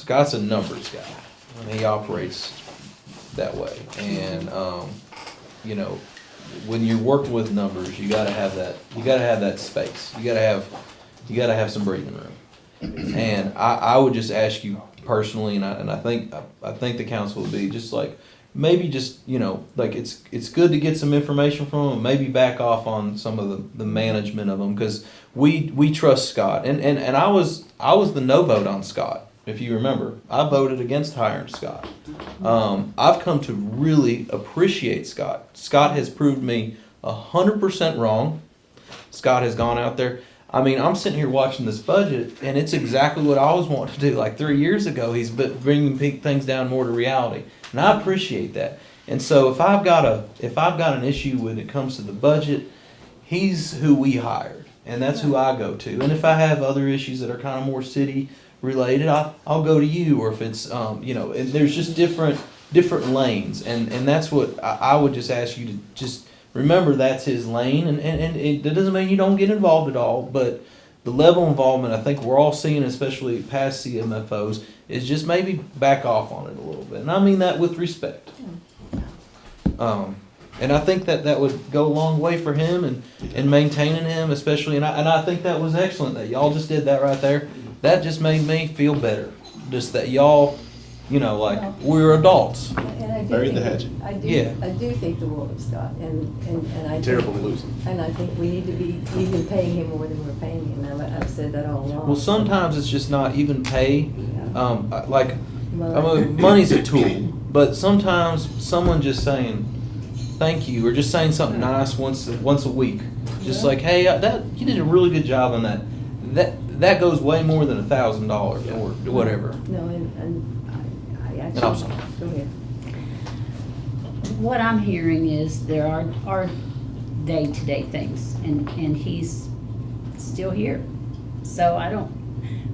Scott's a numbers guy, and he operates that way. And, um, you know, when you're working with numbers, you gotta have that, you gotta have that space. You gotta have, you gotta have some breathing room. And I, I would just ask you personally, and I, and I think, I think the council would be just like, maybe just, you know, like it's, it's good to get some information from them, maybe back off on some of the, the management of them, cause we, we trust Scott. And, and, and I was, I was the no vote on Scott, if you remember. I voted against hiring Scott. Um, I've come to really appreciate Scott. Scott has proved me hundred percent wrong. Scott has gone out there. I mean, I'm sitting here watching this budget, and it's exactly what I always wanted to do. Like three years ago, he's bu- bringing pe- things down more to reality, and I appreciate that. And so, if I've got a if I've got an issue when it comes to the budget, he's who we hired, and that's who I go to. And if I have other issues that are kind of more city related, I, I'll go to you, or if it's, um, you know, and there's just different, different lanes, and, and that's what I, I would just ask you to just remember that's his lane, and, and, and it, that doesn't mean you don't get involved at all, but the level of involvement, I think we're all seeing, especially past CMFOs, is just maybe back off on it a little bit, and I mean that with respect. Um, and I think that that would go a long way for him and, and maintaining him, especially. And I, and I think that was excellent that y'all just did that right there. That just made me feel better. Just that y'all, you know, like we're adults. And I do Bury the think- hatchet. I Yeah. do, I do think the world of Scott, and, and, and I. think- Terrible to lose him. And I think we need to be even paying him more than we're paying him, I've, I've said that all along. Well, sometimes it's just not even pay. Yeah. Um, I- like, I Money. mean, money's a tool, but sometimes someone just saying thank you or just saying something nice once once a week, just Yeah. like hey, uh, that you did a really good job on that. That that goes way more than a thousand dollars or whatever. No, and, and I, I actually. I'm sorry. Go ahead. What I'm hearing is there are, are day-to-day things, and, and he's still here. So I don't,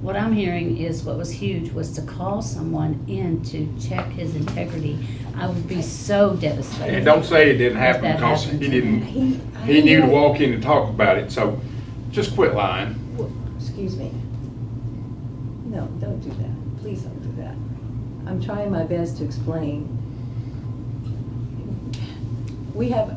what I'm hearing is what was huge was to call someone in to check his integrity. I would be so devastated. And don't say it didn't happen That because he happened. didn't, He. he knew to I- walk in and talk about it, so just quit lying. Well, Excuse me. No, don't do that. Please don't do that. I'm trying my best to explain. We have,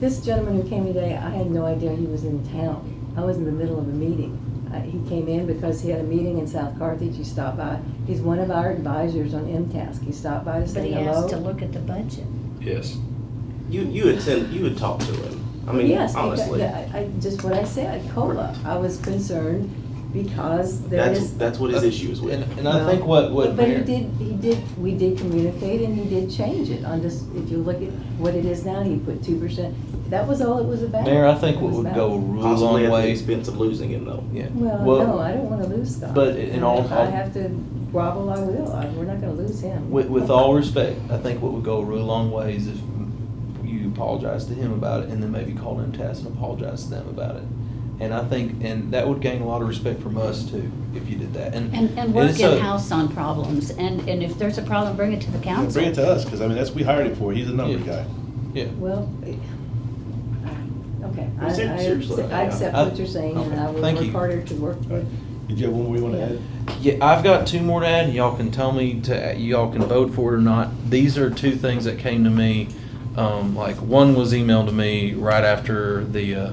this gentleman who came today, I had no idea he was in town. I was in the middle of a meeting. Uh, He came in because he had a meeting in South Carthage. He stopped by. He's one of our advisors on MTASC. He stopped by to But say he asked to hello. look at the budget. Yes. You you would send you would talk to him. I mean, Yes, because- honestly, yeah, I, I- just what I said, COLA. I was concerned because there that's is. that's what his issue is with. Uh, And, and I think what what But he Mary- did, he did, we did communicate and he did change it on this, if you look at what it is now, he put two percent. That was all it was about. Mayor, I think It what was would about- go a real Possibly long at the way. expense of losing him, though. Yeah. Well, no, I don't wanna lose Scott. but in all- If I have to grovel, I will. I- We're not gonna lose him. With, with all respect, I think what would go a real long way is if you apologize to him about it and then maybe call him task and apologize to them about it. And I think, and that would gain a lot of respect from us too, if you did that. Mm-hmm. And, And, and it's work a- in-house on problems, and, and if there's a problem, bring it to the Yeah, council. Bring it to us, because I mean, that's, we hired him for, he's a number Yeah. guy. Yeah. Well, it- okay, I, Ser- seriously, I, I accept yeah. what you're saying and I will Thank work you. harder to work. All right. Did you have one more you want to add? Yeah, I've got two more to add, and y'all can tell me to, y'all can vote for it or not. These are two things that came to me. Um, like one was emailed to me right after the, uh,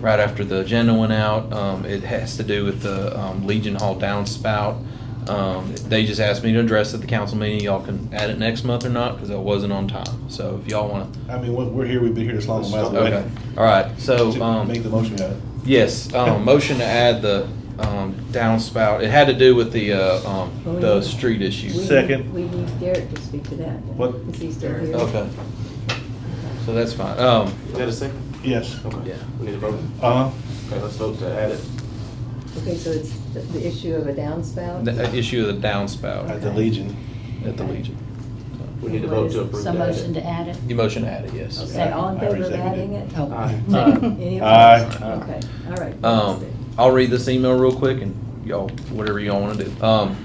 right after the agenda went out. Um, it has to do with the um, Legion Hall downspout. Um, they just asked me to address it at the council meeting. Y'all can add it next month or not because I wasn't on time. So if y'all want to, I mean, we're- we're here, we've been here this long, we might as well. okay, all right. So Just um, Make the motion, guys. Yes, um, motion to add the, um, downspout, it had to do with the, uh, um, the street Oh, We issue. need- Second. We need Derek to speak to that. What? Is he still here? Okay. So that's fine, um, Is that a second? Yes. Okay. Yeah. We need to vote. Uh-huh. Okay, let's vote to add it. Okay, so it's the- the issue of a downspout? the uh, issue of the At downspout the Legion. at the Legion. We need to What vote is to it? approve So to add it. motion to add it? You motion to add it, yes. Okay, all in I favor of reseconded. adding "Oh, it? Oh. Aye. Second. Any Aye. opposed? Okay, all right. Um, I'll read this email real quick and y'all, whatever y'all wanna do. Um,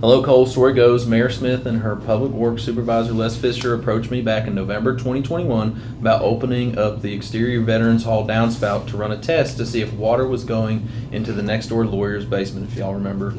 Hello, Cole. Story goes Mayor Smith and her public works supervisor Les Fisher approached me back in November 2021 about opening up the exterior Veterans Hall downspout to run a test to see if water was going into the next door lawyer's basement. If y'all remember,